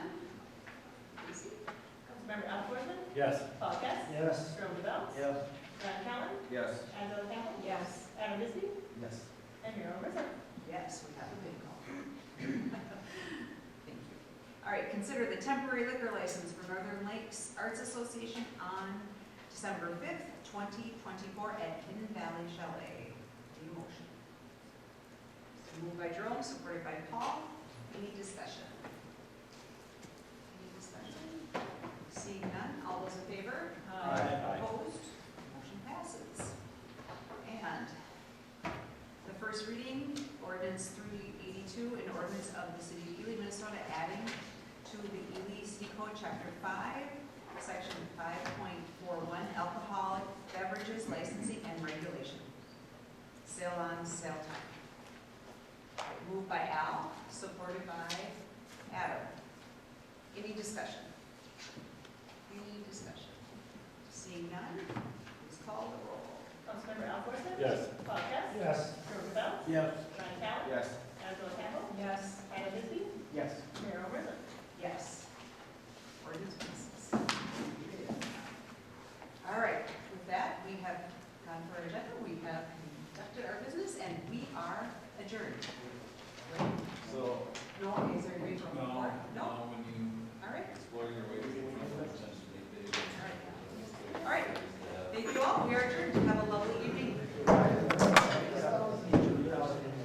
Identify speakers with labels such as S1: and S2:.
S1: Yes.
S2: Paul Guest,
S3: Yes.
S2: Jerome Duval,
S3: Yes.
S2: Ron Callen,
S3: Yes.
S2: Angela Campbell,
S4: Yes.
S2: Adam Dizzy,
S3: Yes.
S2: and Mayor Olbersen.
S4: Yes, we have a big call. Thank you. All right, consider the temporary liquor license for Northern Lakes Arts Association on December fifth, twenty twenty-four at Hidden Valley Chalet. Need a motion? Moved by Jerome, supported by Paul. Any discussion? Any discussion? Seeing none, all those in favor?
S3: Aye.
S4: Opposed? Motion passes. And the first reading, ordinance three eighty-two, an ordinance of the city of Ely, Minnesota, adding to the Ely City Code, chapter five, section five point four one, alcoholic beverages licensing and regulation. Sale on sale time. Moved by Al, supported by Adam. Any discussion? Any discussion? Seeing none, please call the roll.
S2: Councilmember Al Porson.
S1: Yes.
S2: Paul Guest,
S3: Yes.
S2: Jerome Duval,
S3: Yes.
S2: Ron Callen,
S3: Yes.
S2: Angela Campbell,
S4: Yes.
S2: Adam Dizzy,
S3: Yes.
S2: Mayor Olbersen.
S4: Yes. Ordinance passes.